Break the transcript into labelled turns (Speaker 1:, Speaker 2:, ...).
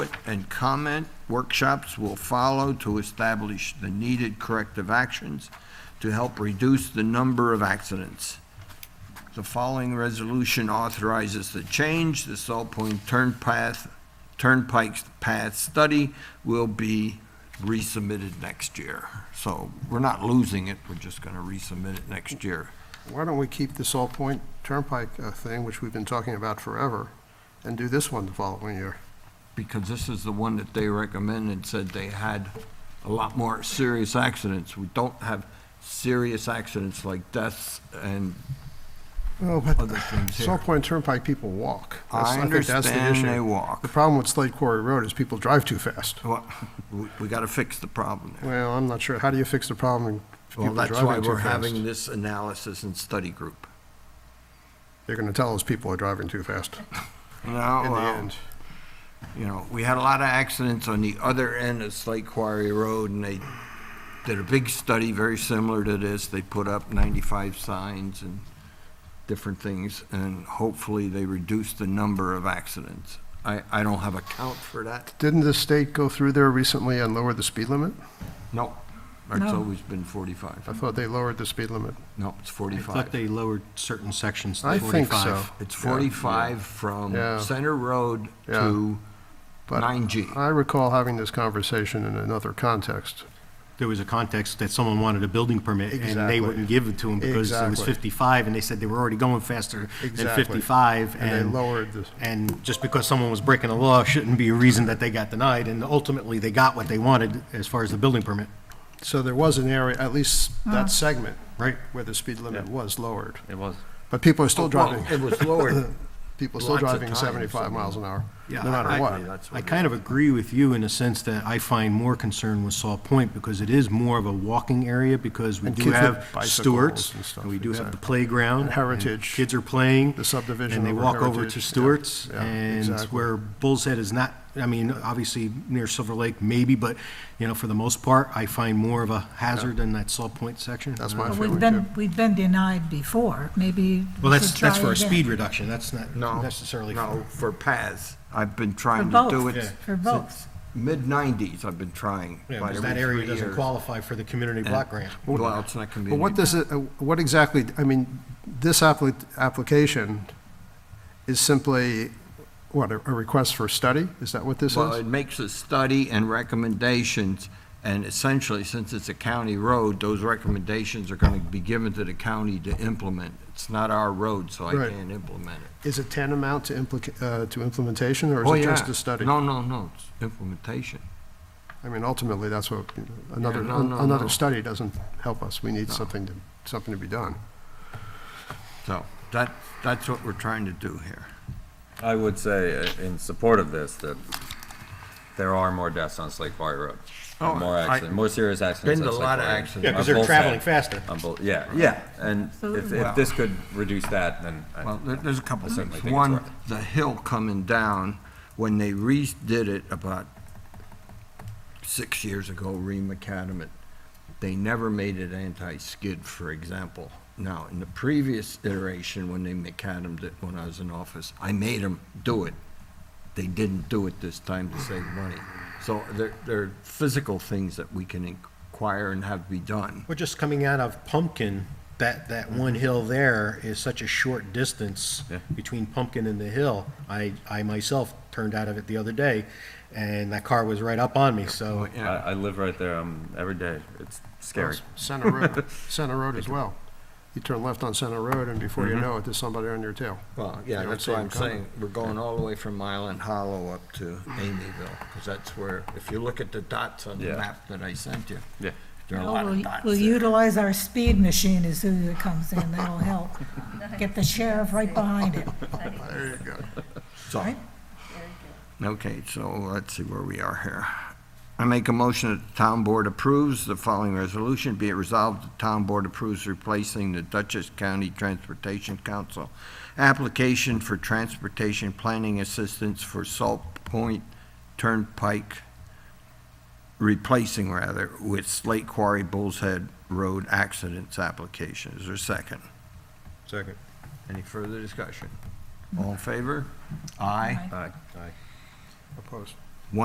Speaker 1: and comment workshops will follow to establish the needed corrective actions to help reduce the number of accidents. The following resolution authorizes the change. The Salt Point Turn Path, Turnpike Path Study will be resubmitted next year. So we're not losing it, we're just going to resubmit it next year.
Speaker 2: Why don't we keep the Salt Point Turnpike uh, thing, which we've been talking about forever, and do this one the following year?
Speaker 1: Because this is the one that they recommended, said they had a lot more serious accidents. We don't have serious accidents like deaths and
Speaker 2: Oh, but
Speaker 1: Other things here.
Speaker 2: Salt Point Turnpike, people walk. That's-
Speaker 1: I
Speaker 2: think that's the
Speaker 1: understand
Speaker 2: issue.
Speaker 1: they walk.
Speaker 2: The problem with Slate Quarry Road is people drive too fast.
Speaker 1: Well, we, we gotta fix the problem there.
Speaker 2: Well, I'm not sure. How do you fix the problem if
Speaker 1: Well,
Speaker 2: people driving too
Speaker 1: that's
Speaker 2: fast?
Speaker 1: why we're having this analysis and study group.
Speaker 2: They're going to tell us people are driving too fast
Speaker 1: No,
Speaker 2: in the
Speaker 1: well,
Speaker 2: end.
Speaker 1: you know, we had a lot of accidents on the other end of Slate Quarry Road, and they did a big study very similar to this. They put up ninety-five signs and different things, and hopefully they reduced the number of accidents. I, I don't have a count for that.
Speaker 2: Didn't the state go through there recently and lower the speed limit?
Speaker 1: No, it's
Speaker 3: No.
Speaker 1: always been
Speaker 2: I
Speaker 1: forty-five.
Speaker 2: thought they lowered the speed limit.
Speaker 1: No, it's
Speaker 4: I
Speaker 1: forty-five.
Speaker 4: thought they lowered certain sections
Speaker 2: I
Speaker 4: to 45.
Speaker 2: think so.
Speaker 1: It's
Speaker 2: Yeah.
Speaker 1: 45 from
Speaker 2: Yeah.
Speaker 1: Center Road to
Speaker 2: But
Speaker 1: 9G.
Speaker 2: I recall having this conversation in another context.
Speaker 4: There was a context that someone wanted a building permit, and
Speaker 2: Exactly.
Speaker 4: they wouldn't give it to them because it was
Speaker 2: Exactly.
Speaker 4: 55, and they said they were already going faster than
Speaker 2: Exactly.
Speaker 4: 55.
Speaker 2: And they lowered the-
Speaker 4: And just because someone was breaking the law shouldn't be a reason that they got denied, and ultimately, they got what they wanted as far as the building permit.
Speaker 2: So there was an area, at least that segment.
Speaker 4: Right.
Speaker 2: Where the speed limit
Speaker 5: Yeah.
Speaker 2: was lowered.
Speaker 5: It was.
Speaker 2: But people are still driving,
Speaker 1: Well, It was lowered.
Speaker 2: people are still
Speaker 1: lots of
Speaker 2: driving
Speaker 1: times, I
Speaker 2: seventy-five
Speaker 1: mean.
Speaker 2: miles an hour, no
Speaker 4: Yeah,
Speaker 2: matter
Speaker 4: I-
Speaker 2: what.
Speaker 1: That's what
Speaker 4: I
Speaker 1: it
Speaker 4: kind of agree with you in a sense that I find more concern with Saw Point because it is more of a walking area because we
Speaker 2: And
Speaker 4: do
Speaker 2: kids with
Speaker 4: have
Speaker 2: bicycles
Speaker 4: Stewarts
Speaker 2: and stuff,
Speaker 4: and we do have the
Speaker 2: exactly.
Speaker 4: playground.
Speaker 2: And Heritage,
Speaker 4: Kids are playing.
Speaker 2: the subdivision
Speaker 4: And they
Speaker 2: over
Speaker 4: walk over
Speaker 2: Heritage,
Speaker 4: to
Speaker 2: yeah,
Speaker 4: Stewart's
Speaker 2: yeah,
Speaker 4: and
Speaker 2: exactly.
Speaker 4: where Bull's Head is not, I mean, obviously near Silver Lake maybe, but, you know, for the most part, I find more of a hazard in that Saw Point section.
Speaker 2: That's my
Speaker 3: But
Speaker 2: feeling
Speaker 3: We've
Speaker 2: too.
Speaker 3: been, we've been denied before, maybe
Speaker 4: Well,
Speaker 3: we should
Speaker 4: that's,
Speaker 3: try
Speaker 4: that's for a
Speaker 3: again.
Speaker 4: speed reduction. That's not
Speaker 1: No.
Speaker 4: necessarily. for-
Speaker 1: No, for paths. I've been
Speaker 3: For
Speaker 1: trying to do
Speaker 3: both,
Speaker 1: it,
Speaker 3: for both.
Speaker 1: mid-90s, I've been trying.
Speaker 4: Yeah,
Speaker 1: about
Speaker 4: because
Speaker 1: every
Speaker 4: that area
Speaker 1: three
Speaker 4: doesn't
Speaker 1: years.
Speaker 4: qualify for the community block grant.
Speaker 1: Well, it's not
Speaker 2: But
Speaker 1: convenient.
Speaker 2: what does it, uh, what exactly, I mean, this appli- application is simply, what, a a request for study? Is that what this
Speaker 1: Well,
Speaker 2: is?
Speaker 1: it makes a study and recommendations, and essentially, since it's a county road, those recommendations are going to be given to the county to implement. It's not our road, so I
Speaker 2: Right.
Speaker 1: can't implement it.
Speaker 2: Is it tantamount to implica, uh, to implementation, or
Speaker 1: Oh,
Speaker 2: is it
Speaker 1: yeah.
Speaker 2: just a study?
Speaker 1: No, no, no, it's implementation.
Speaker 2: I mean, ultimately, that's what, you know, another,
Speaker 1: no, no, no.
Speaker 2: another study doesn't help us. We need something to, something to be done.
Speaker 1: So that, that's what we're trying to do here.
Speaker 5: I would say uh, in support of this, that there are more deaths on Slate Quarry Road.
Speaker 1: Oh,
Speaker 5: More
Speaker 1: I-
Speaker 5: accidents, more serious accidents.
Speaker 1: Been to
Speaker 5: on
Speaker 1: a
Speaker 5: Slate
Speaker 1: lot of
Speaker 5: Quarry Road.
Speaker 1: accidents.
Speaker 4: Yeah, because
Speaker 5: On
Speaker 4: they're
Speaker 5: both
Speaker 4: traveling
Speaker 5: sides.
Speaker 4: faster.
Speaker 5: On both, yeah, yeah. And if,
Speaker 3: Absolutely.
Speaker 5: if this could reduce that, then. I-
Speaker 1: Well, there, there's a couple
Speaker 5: I certainly
Speaker 1: things.
Speaker 5: think it's
Speaker 1: One,
Speaker 5: worth it.
Speaker 1: the hill coming down, when they redid it about six years ago, re-macadam it, they never made it anti-skid, for example. Now, in the previous iteration, when they macadamed it, when I was in office, I made them do it. They didn't do it this time to save money. So there, there are physical things that we can inquire and have be done.
Speaker 4: We're just coming out of Pumpkin, that, that one hill there is such a short distance
Speaker 5: Yeah.
Speaker 4: between Pumpkin and the hill. I, I myself turned out of it the other day, and that car was right up on me, so.
Speaker 5: I, I live right there, um, every day. It's scary.
Speaker 2: Center Road, Center Road as well. You turn left on Center Road, and before you know it, there's somebody on your tail.
Speaker 1: Mm-hmm. Well, yeah,
Speaker 2: You don't
Speaker 1: that's
Speaker 2: see
Speaker 1: what
Speaker 2: 'em
Speaker 1: I'm saying. We're going all the way from Island Hollow up to Amyville, because that's where, if you look at the dots on the
Speaker 5: Mm-hmm. Yeah.
Speaker 1: map that I sent you,
Speaker 5: Yeah.
Speaker 1: there are a
Speaker 3: Oh,
Speaker 1: lot of
Speaker 3: we'll-
Speaker 1: dots
Speaker 3: We'll
Speaker 1: there.
Speaker 3: utilize our speed machine as soon as it comes in, that'll help. Get the sheriff right behind it.
Speaker 2: There you go.
Speaker 1: So, okay, so let's see where we are here. I make a motion that the town board approves the following resolution. Be it resolved, the town board approves replacing the Dutchess County Transportation Council application for transportation planning assistance for Salt Point Turnpike replacing rather, with Slate Quarry Bull's Head Road accidents application. Is there a second?
Speaker 4: Second.
Speaker 1: Any further discussion? All in favor? Aye.
Speaker 5: All right.
Speaker 2: Opposed.